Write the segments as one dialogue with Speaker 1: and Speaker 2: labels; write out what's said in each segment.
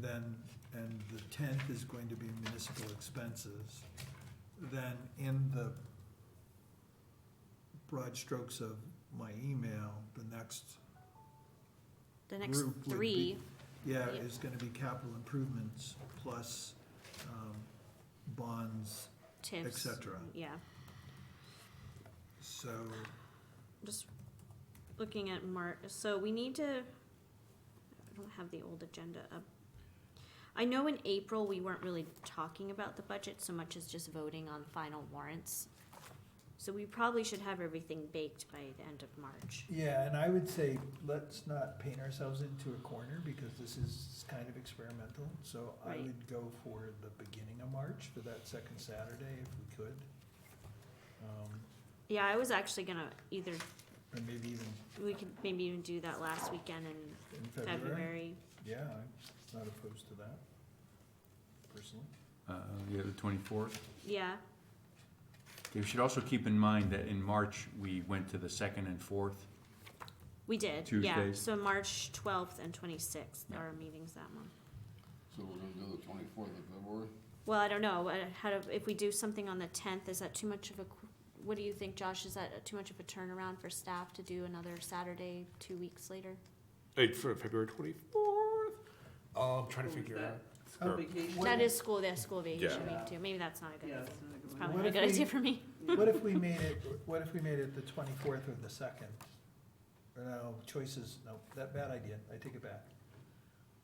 Speaker 1: then, and the tenth is going to be municipal expenses, then in the broad strokes of my email, the next,
Speaker 2: The next
Speaker 1: Group would be-
Speaker 2: three,
Speaker 1: yeah,
Speaker 2: Yeah.
Speaker 1: is gonna be capital improvements plus, um, bonds, et
Speaker 2: TIFs,
Speaker 1: cetera.
Speaker 2: yeah.
Speaker 1: So,
Speaker 2: Just looking at March, so we need to, I don't have the old agenda up. I know in April, we weren't really talking about the budget so much as just voting on final warrants. So we probably should have everything baked by the end of March.
Speaker 1: yeah, and I would say, let's not paint ourselves into a corner, because this is kind of experimental. So I
Speaker 2: Right.
Speaker 1: would go for the beginning of March, for that second Saturday, if we could. Um,
Speaker 2: Yeah, I was actually gonna either,
Speaker 1: Or maybe even
Speaker 2: we could maybe even do that last weekend in
Speaker 1: in February.
Speaker 2: February.
Speaker 1: Yeah, I'm not opposed to that, personally.
Speaker 3: Uh, yeah, the twenty-fourth.
Speaker 2: Yeah,
Speaker 3: You should also keep in mind that in March, we went to the second and fourth.
Speaker 2: we did, yeah.
Speaker 3: Tuesdays.
Speaker 2: So March twelfth and twenty-sixth
Speaker 3: Yeah.
Speaker 2: are our meetings that month.
Speaker 4: So we're gonna do the twenty-fourth of February?
Speaker 2: Well, I don't know, uh, how to, if we do something on the tenth, is that too much of a, qu- what do you think, Josh, is that too much of a turnaround for staff to do another Saturday, two weeks later?
Speaker 5: Eight for February twenty-fourth. Oh, I'm trying to figure out.
Speaker 6: Oh,
Speaker 5: Sure.
Speaker 6: vacation.
Speaker 2: That is school, that's school vacation
Speaker 6: Yeah.
Speaker 2: week too, maybe that's not a good,
Speaker 6: Yeah,
Speaker 2: idea.
Speaker 6: it's not a
Speaker 2: it's
Speaker 6: good
Speaker 2: probably
Speaker 1: What
Speaker 2: not
Speaker 6: one.
Speaker 2: a
Speaker 1: if
Speaker 2: good
Speaker 1: we-
Speaker 2: idea for me.
Speaker 1: What if we made it, what if we made it the twenty-fourth or the second? Or no, choices, no, that bad idea, I take it back.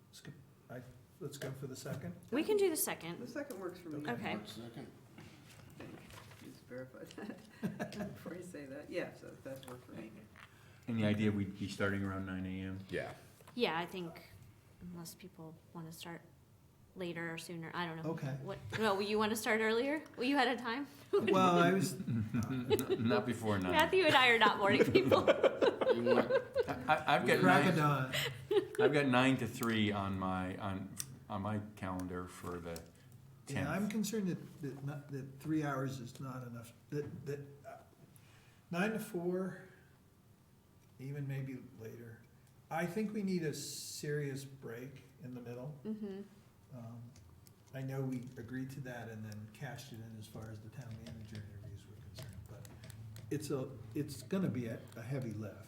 Speaker 1: Let's go, I, let's go for the second.
Speaker 2: We can do the
Speaker 6: The
Speaker 2: second,
Speaker 6: second works for me.
Speaker 1: Okay.
Speaker 2: Okay.
Speaker 4: March second,
Speaker 6: Just verify that before you say that. Yeah, so that worked for me.
Speaker 3: And the idea we'd be starting around nine AM.
Speaker 5: Yeah.
Speaker 2: yeah, I think, unless people wanna start later or sooner, I don't know.
Speaker 1: Okay.
Speaker 2: What, no, you wanna start earlier? Were you out of time?
Speaker 1: Well, I was,
Speaker 3: Not before nine.
Speaker 2: Matthew and I are not morning people.
Speaker 4: you want,
Speaker 3: I, I've got
Speaker 1: crack
Speaker 3: nine, I've got nine to three on my, on, on my calendar for the
Speaker 1: Yeah, I'm
Speaker 3: tenth.
Speaker 1: concerned that, that not, that three hours is not enough, that, that, uh, nine to four, even maybe later. I think we need a serious break in the middle.
Speaker 2: Mm-hmm,
Speaker 1: Um, I know we agreed to that and then cashed it in as far as the town manager interviews were concerned, but it's a, it's gonna be a, a heavy lift.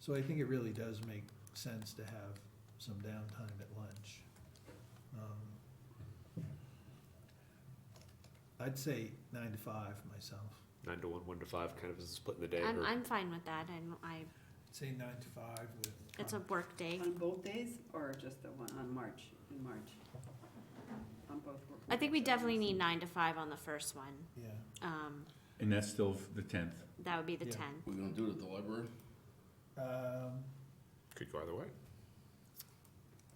Speaker 1: So I think it really does make sense to have some downtime at lunch. Um, I'd say nine to five myself.
Speaker 5: Nine to one, one to five, kind of as a split in the day.
Speaker 2: I'm,
Speaker 5: or-
Speaker 2: I'm fine with that, and I,
Speaker 1: Say nine to five with.
Speaker 2: it's a work day.
Speaker 6: On both days or just the one on March, in March? On both. work
Speaker 2: I think we
Speaker 6: days.
Speaker 2: definitely need nine to five on the first one.
Speaker 1: Yeah,
Speaker 2: Um,
Speaker 3: And that's still the tenth.
Speaker 2: that would be the
Speaker 1: Yeah.
Speaker 2: ten.
Speaker 4: we're gonna do it at the library?
Speaker 1: um,
Speaker 5: Could go either way.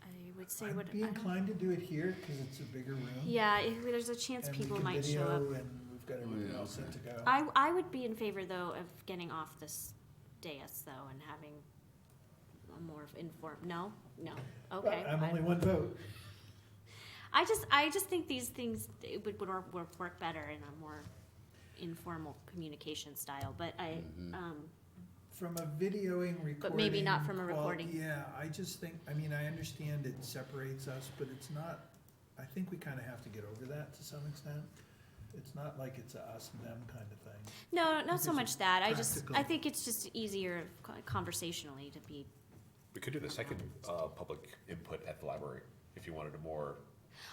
Speaker 2: I would say what.
Speaker 1: I'd be
Speaker 2: I don't-
Speaker 1: inclined to do it here, cause it's a bigger room.
Speaker 2: Yeah, if there's a chance
Speaker 1: and we
Speaker 2: people
Speaker 1: can
Speaker 2: might show up.
Speaker 1: video And we've got everything
Speaker 4: Oh, yeah,
Speaker 1: all set
Speaker 4: okay.
Speaker 1: to go.
Speaker 2: I, I would be in favor though of getting off this dais though and having a more informed, no, no, okay.
Speaker 1: But I'm
Speaker 2: I-
Speaker 1: only one vote.
Speaker 2: I just, I just think these things, it would, would work, work- work better in a more informal communication style, but I,
Speaker 4: Mhm.
Speaker 2: um,
Speaker 1: From a videoing recording.
Speaker 2: But maybe not from a
Speaker 1: qual-
Speaker 2: recording.
Speaker 1: Yeah, I just think, I mean, I understand it separates us, but it's not, I think we kind of have to get over that to some extent. It's not like it's a us and them kind of thing.
Speaker 2: no, not so
Speaker 1: Because
Speaker 2: much that. I just, I
Speaker 1: practical.
Speaker 2: think it's just easier conversationally to be
Speaker 5: We could do the second uh, public input at the library if you wanted a more.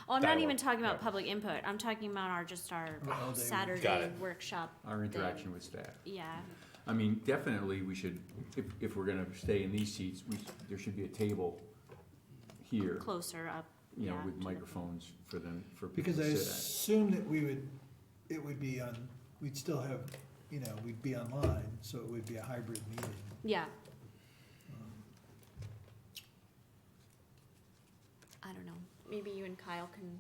Speaker 2: Oh, I'm not
Speaker 5: dialogue.
Speaker 2: even talking about
Speaker 5: Yeah.
Speaker 2: public input. I'm talking about our, just our
Speaker 1: Our all-day
Speaker 5: Got
Speaker 2: Saturday
Speaker 5: it.
Speaker 2: workshop.
Speaker 3: Our interaction with staff.
Speaker 2: Yeah,
Speaker 3: I mean, definitely, we should, if, if we're gonna stay in these seats, we, there should be a table here,
Speaker 2: closer up.
Speaker 3: you know,
Speaker 2: yeah,
Speaker 3: with
Speaker 2: to the-
Speaker 3: microphones for them, for people
Speaker 1: Because I
Speaker 3: to sit
Speaker 1: assume that we would, it would be on, we'd still have, you know, we'd be online, so it would be a hybrid meeting.
Speaker 2: Yeah,
Speaker 1: Um,
Speaker 2: I don't know. Maybe you and Kyle can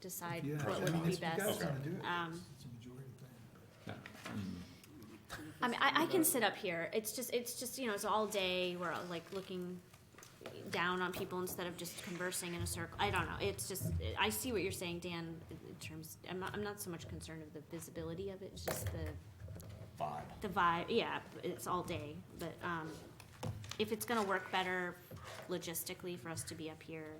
Speaker 2: decide
Speaker 1: yeah, I
Speaker 2: what would
Speaker 1: mean,
Speaker 2: be
Speaker 1: if you guys
Speaker 2: best.
Speaker 5: Okay.
Speaker 1: wanna do it,
Speaker 2: Um,
Speaker 1: it's- it's a majority thing.
Speaker 3: at. Yeah, mm.
Speaker 2: I mean, I, I can sit up here. It's just, it's just, you know, it's all day. We're all, like looking down on people instead of just conversing in a circle. I don't know. It's just, I see what you're saying, Dan, in terms, I'm not, I'm not so much concerned of the visibility of it. It's just the
Speaker 5: Vibe.
Speaker 2: the vibe, yeah, it's all day, but, um, if it's gonna work better logistically for us to be up here,